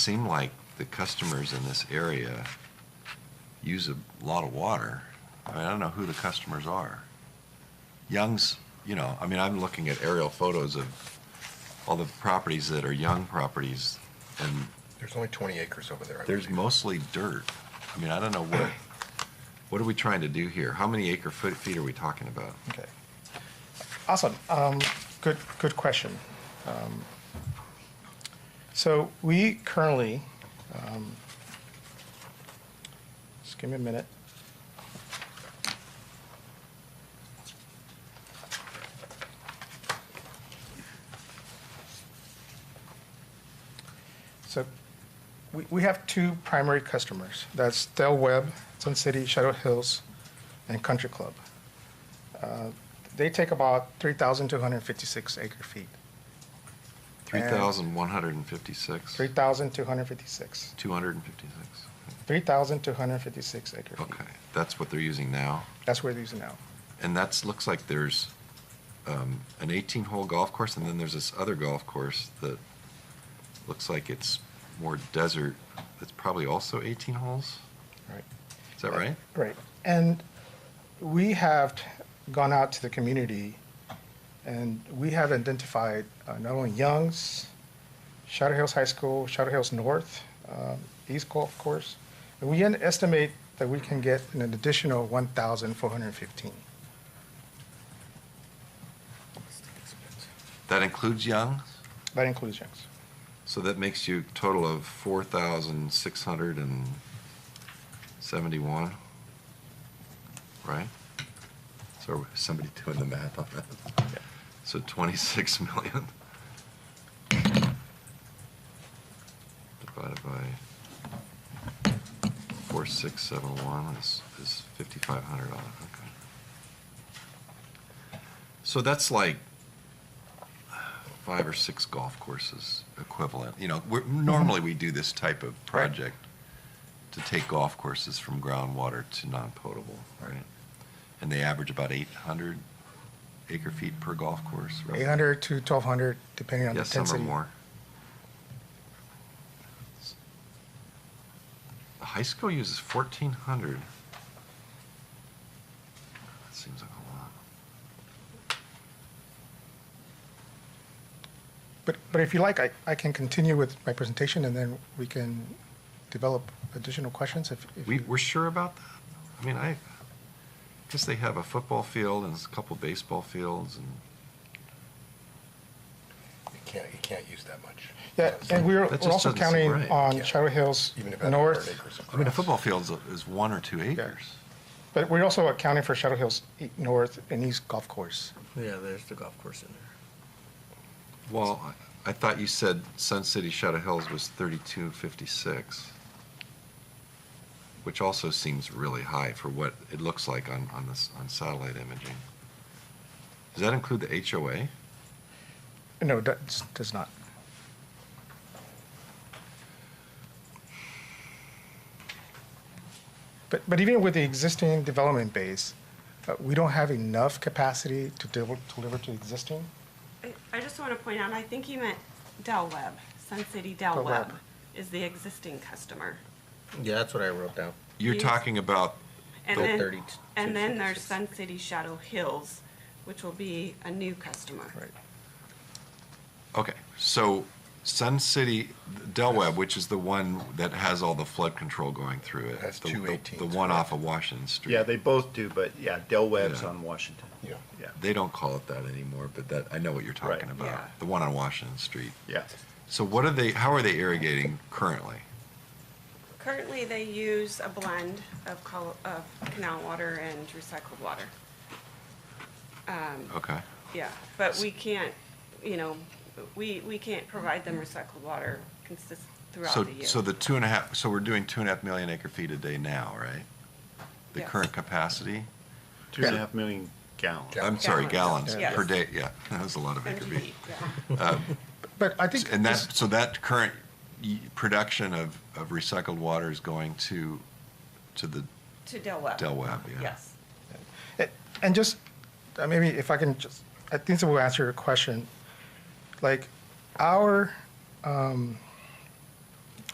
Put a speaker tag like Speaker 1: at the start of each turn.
Speaker 1: seem like the customers in this area use a lot of water. I mean, I don't know who the customers are. Young's, you know, I mean, I'm looking at aerial photos of all the properties that are Young properties, and
Speaker 2: There's only 20 acres over there. I
Speaker 1: there's
Speaker 2: believe.
Speaker 1: mostly dirt. I mean, I don't know what, what are we trying to do here? How many acre foot feet are we talking about?
Speaker 2: Uh,
Speaker 3: Okay. Awesome. Um, good, good question. Um, So we currently, um, just give me a minute. So we, we have two primary customers. That's Del Webb, Sun City, Shadow Hills, and Country Club. Uh, They take about 3,256 acre feet.
Speaker 1: 3,156?
Speaker 3: 3,256.
Speaker 1: 256?
Speaker 3: 3,256 acre feet.
Speaker 1: Okay, that's what they're using now?
Speaker 3: That's where they're using now.
Speaker 1: And that's, looks like there's um, an 18-hole golf course, and then there's this other golf course that looks like it's more desert, that's probably also 18 holes?
Speaker 3: Right.
Speaker 1: Is that right?
Speaker 3: Right. And we have t- gone out to the community and we have identified uh, not only Young's, Shadow Hills High School, Shadow Hills North, um, East Golf Course. And we en- estimate that we can get an additional 1,415.
Speaker 1: That includes Young?
Speaker 3: That includes Young's.
Speaker 1: So that makes you a total of 4,671, right? So somebody doing the math on that? So 26 million divided by 4671 is, is 5,500, dollars, okay. So that's like five or six golf courses equivalent. You know, we're, normally we do this type of project to take golf courses from groundwater to non-potable, right? And they average about 800 acre feet per golf course. roughly.
Speaker 3: 800 to 1,200, depending on the
Speaker 1: Yes, some are
Speaker 3: density.
Speaker 1: more. The high school uses 1,400. That seems like a lot.
Speaker 3: But, but if you like, I, I can continue with my presentation and then we can develop additional questions if, if
Speaker 1: We,
Speaker 3: you-
Speaker 1: we're sure about that? I mean, I guess they have a football field and a couple baseball fields and
Speaker 2: You can't, you can't use that much.
Speaker 3: Yeah, and we're
Speaker 1: That just
Speaker 3: we're also
Speaker 1: doesn't seem
Speaker 3: counting
Speaker 1: right.
Speaker 3: on
Speaker 2: Yeah.
Speaker 3: Shadow Hills
Speaker 2: Even if it had 100
Speaker 3: North,
Speaker 2: acres of
Speaker 1: I mean, a
Speaker 2: grass.
Speaker 1: football field is one or two acres.
Speaker 3: but we're also accounting for Shadow Hills E- North and East Golf Course.
Speaker 4: Yeah, there's the golf course in there.
Speaker 1: Well, I- I thought you said Sun City Shadow Hills was thirty-two fifty-six, which also seems really high for what it looks like on, on this, on satellite imaging. Does that include the HOA?
Speaker 3: No, that does not. But, but even with the existing development base, uh, we don't have enough capacity to deliver, deliver to existing.
Speaker 5: I- I just want to point out, I think he meant Del Webb, Sun City Del
Speaker 3: Del Webb.
Speaker 5: Webb is the existing customer.
Speaker 4: Yeah, that's what I wrote down.
Speaker 1: You're
Speaker 5: Yes.
Speaker 1: talking about,
Speaker 5: And
Speaker 4: Del
Speaker 5: then,
Speaker 4: 32,
Speaker 5: and then there's
Speaker 4: 66.
Speaker 5: Sun City Shadow Hills, which will be a new customer.
Speaker 3: Right.
Speaker 1: okay, so Sun City, Del Webb, which is the one that has all the flood control going through it.
Speaker 2: That's
Speaker 1: the-
Speaker 2: two
Speaker 1: the-
Speaker 2: 18s,
Speaker 1: The one
Speaker 2: correct.
Speaker 1: off of Washington Street.
Speaker 6: Yeah, they both do, but yeah, Del Webb's
Speaker 1: Yeah.
Speaker 6: on Washington.
Speaker 2: Yeah.
Speaker 6: Yeah,
Speaker 1: They don't call it that anymore, but that, I know what you're
Speaker 6: Right.
Speaker 1: talking about,
Speaker 5: Yeah.
Speaker 1: the one on Washington Street.
Speaker 6: yeah.
Speaker 1: So what are they, how are they irrigating currently?
Speaker 5: Currently, they use a blend of col- of canal water and recycled water.
Speaker 1: Okay.
Speaker 5: Yeah, but we can't, you know, we, we can't provide them recycled water consist throughout
Speaker 1: So,
Speaker 5: the year.
Speaker 1: so the two and a half, so we're doing two and a half million acre feet a day now, right? The
Speaker 5: Yes.
Speaker 1: current capacity?
Speaker 6: Two and a half million gallons.
Speaker 2: Yeah.
Speaker 1: I'm sorry,
Speaker 5: Gallons.
Speaker 1: gallons
Speaker 5: Yes.
Speaker 1: per day, yeah, that was a lot of acre feet.
Speaker 5: MGD, yeah.
Speaker 3: But I think.
Speaker 1: And
Speaker 3: this-
Speaker 1: that, so that current y- production of, of recycled water is going to, to the
Speaker 5: To Del Webb.
Speaker 1: Del Webb, yeah?
Speaker 5: Yes.
Speaker 3: And just, uh, maybe if I can just, I think this will answer your question. Like, our um,